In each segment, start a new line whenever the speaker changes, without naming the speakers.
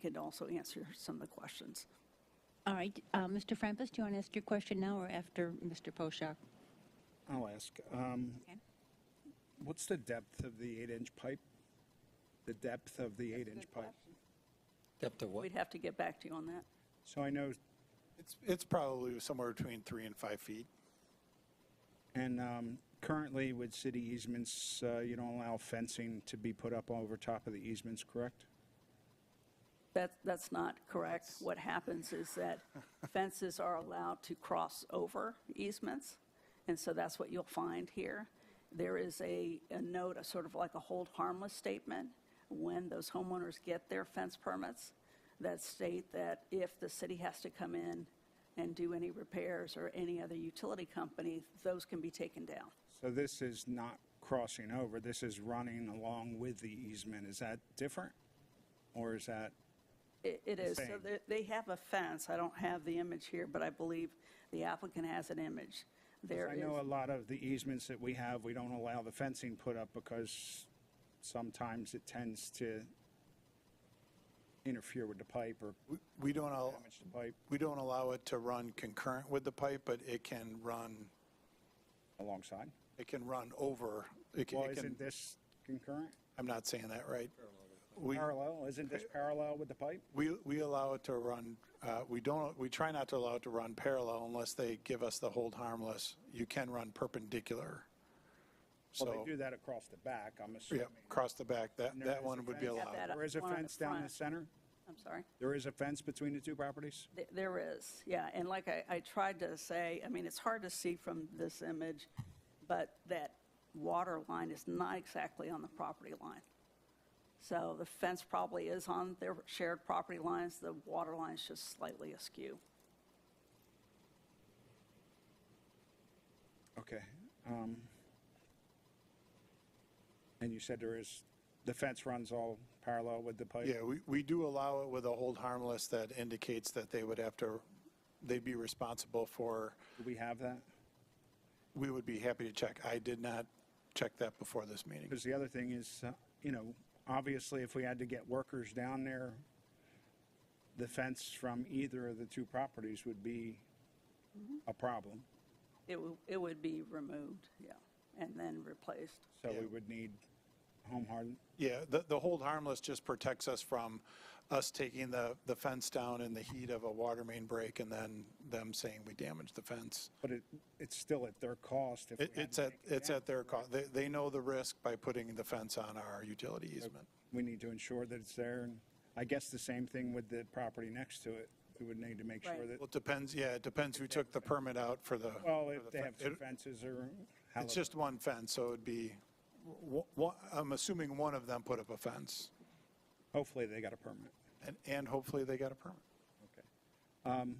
can also answer some of the questions.
All right, uh, Mr. Frampus, do you want to ask your question now or after Mr. Poshak?
I'll ask, um,
Okay.
what's the depth of the eight-inch pipe? The depth of the eight-inch pipe?
Depth of what?
We'd have to get back to you on that.
So I know,
It's, it's probably somewhere between three and five feet.
and um, currently with city easements, uh, you don't allow fencing to be put up over top of the easements, correct?
That, that's not correct. What happens is that fences are allowed to cross over easements, and so that's what you'll find here. There is a, a note, a sort of like a hold harmless statement, when those homeowners get their fence permits, that state that if the city has to come in and do any repairs or any other utility company, those can be taken down.
So this is not crossing over, this is running along with the easement. Is that different? Or is that,
It it is. So
same.
they- they have a fence. I don't have the image here, but I believe the applicant has an image. There
I
is,
know a lot of the easements that we have, we don't allow the fencing put up because sometimes it tends to interfere with the pipe or
We- We don't, al-
damage the pipe
we don't allow it to run concurrent with the pipe, but it can run,
alongside.
it can run over. It can-
Well,
it can,
isn't this concurrent,
I'm not saying that right. We,
parallel, isn't this parallel with the pipe?
we, we allow it to run, uh, we don't, we try not to allow it to run parallel unless they give us the hold harmless. You can run perpendicular.
Well,
So,
they do that across the back, I'm
yeah,
assuming.
across the back, that,
And there is
that
a
one would be
fence-
Got that
allowed.
up
There is a
one at the
fence down the
front.
center?
I'm sorry.
There is a fence between the two properties?
Th- There is, yeah. And like I I tried to say, I mean, it's hard to see from this image, but that water line is not exactly on the property line. So the fence probably is on their shared property lines. The water line is just slightly askew.
Okay. um, And you said there is, the fence runs all parallel with the pipe?
Yeah, we, we do allow it with a hold harmless that indicates that they would have to, they'd be responsible for,
Do we have that?
we would be happy to check. I did not check that before this meeting.
Because the other thing is, uh, you know, obviously if we had to get workers down there, the fence from either of the two properties would be a problem.
It wo- It would be removed, yeah, and then replaced.
So we would need home hardened.
Yeah, the, the hold harmless just protects us from us taking the, the fence down in the heat of a water main break and then them saying we damaged the fence.
But it, it's still at their cost if we
It,
had
it's
to
at,
take it
it's
down.
at their cost. They, they know the risk by putting the fence on our utility easement.
We need to ensure that it's there. And I guess the same thing with the property next to it. We would need to make sure
Right.
that,
Well, it depends, yeah, it depends who took the permit out for the.
well,
for
if
the
they
fen-
have two
it-
fences or how.
It's just one fence, so it'd be, w- w- I'm assuming one of them put up a fence,
Hopefully they got a permit.
and, and hopefully they got a permit.
Okay. Um,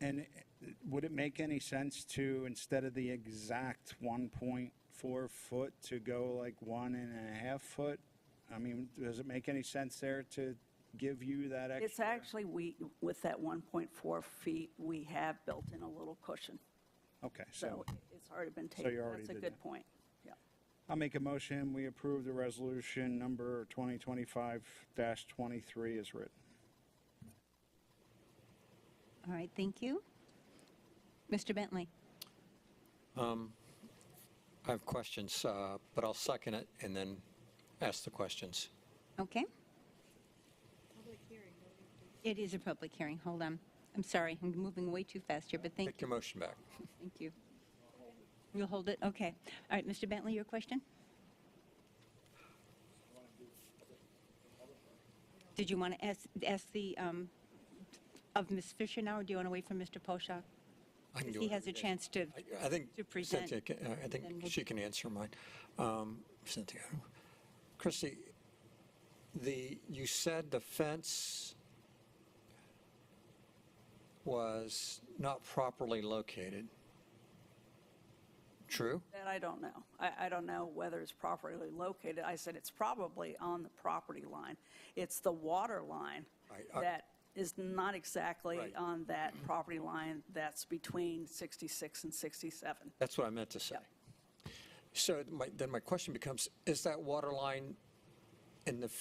And it- would it make any sense to, instead of the exact 1.4 foot, to go like one and a half foot? I mean, does it make any sense there to give you that extra?
It's actually, we, with that 1.4 feet, we have built in a little cushion.
Okay,
So
so
it's already been taken.
you already
That's a
did
good
that.
point. Yeah.
I'll make a motion, we approve the resolution number 2025-23 is written.
All right, thank you. Mr. Bentley?
I have questions, uh, but I'll second it and then ask the questions.
Okay. It is a public hearing, hold on. I'm sorry, I'm moving way too fast here, but thank
Take
you,
your motion back.
thank you. You'll hold it, okay. All right, Mr. Bentley, your question? Did you want to ask, ask the, um, of Ms. Fisher now, or do you want to wait for Mr. Poshak?
I can do
He
whatever
has
you
a
guys-
chance to,
I- I think
to present.
Cynthia, can- uh, I
then
think
we'll-
she can answer mine. Um, Cynthia, Christie, the, you said the fence was not properly located. True?
That I don't know. I, I don't know whether it's properly located. I said it's probably on the property line. It's the water line
Right, I-
that is not exactly
Right.
on that property line that's between 66 and 67.
That's what I meant to say. So my, then my question becomes, is that water line in the